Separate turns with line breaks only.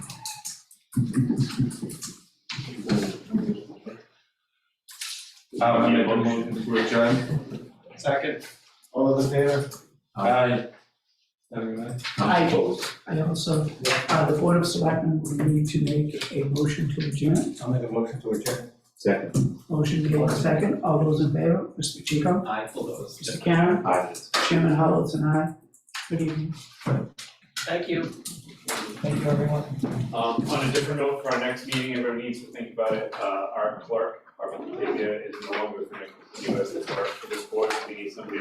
I'll make a motion to adjourn. Second.
All those in favor?
Aye. Everyone.
I I also, uh, the Board of Selectmen will need to make a motion to adjourn.
I'll make a motion to adjourn.
Second.
Motion made in second. All those in favor? Mr. Chico?
Aye, for those.
Mr. Karen?
Aye.
Chairman Hollows and I. Good evening.
Thank you.
Thank you, everyone.
Um, on a different note, for our next meeting, everyone needs to think about it, uh, our clerk, our Wikipedia is no longer gonna continue as the clerk for this board, we need somebody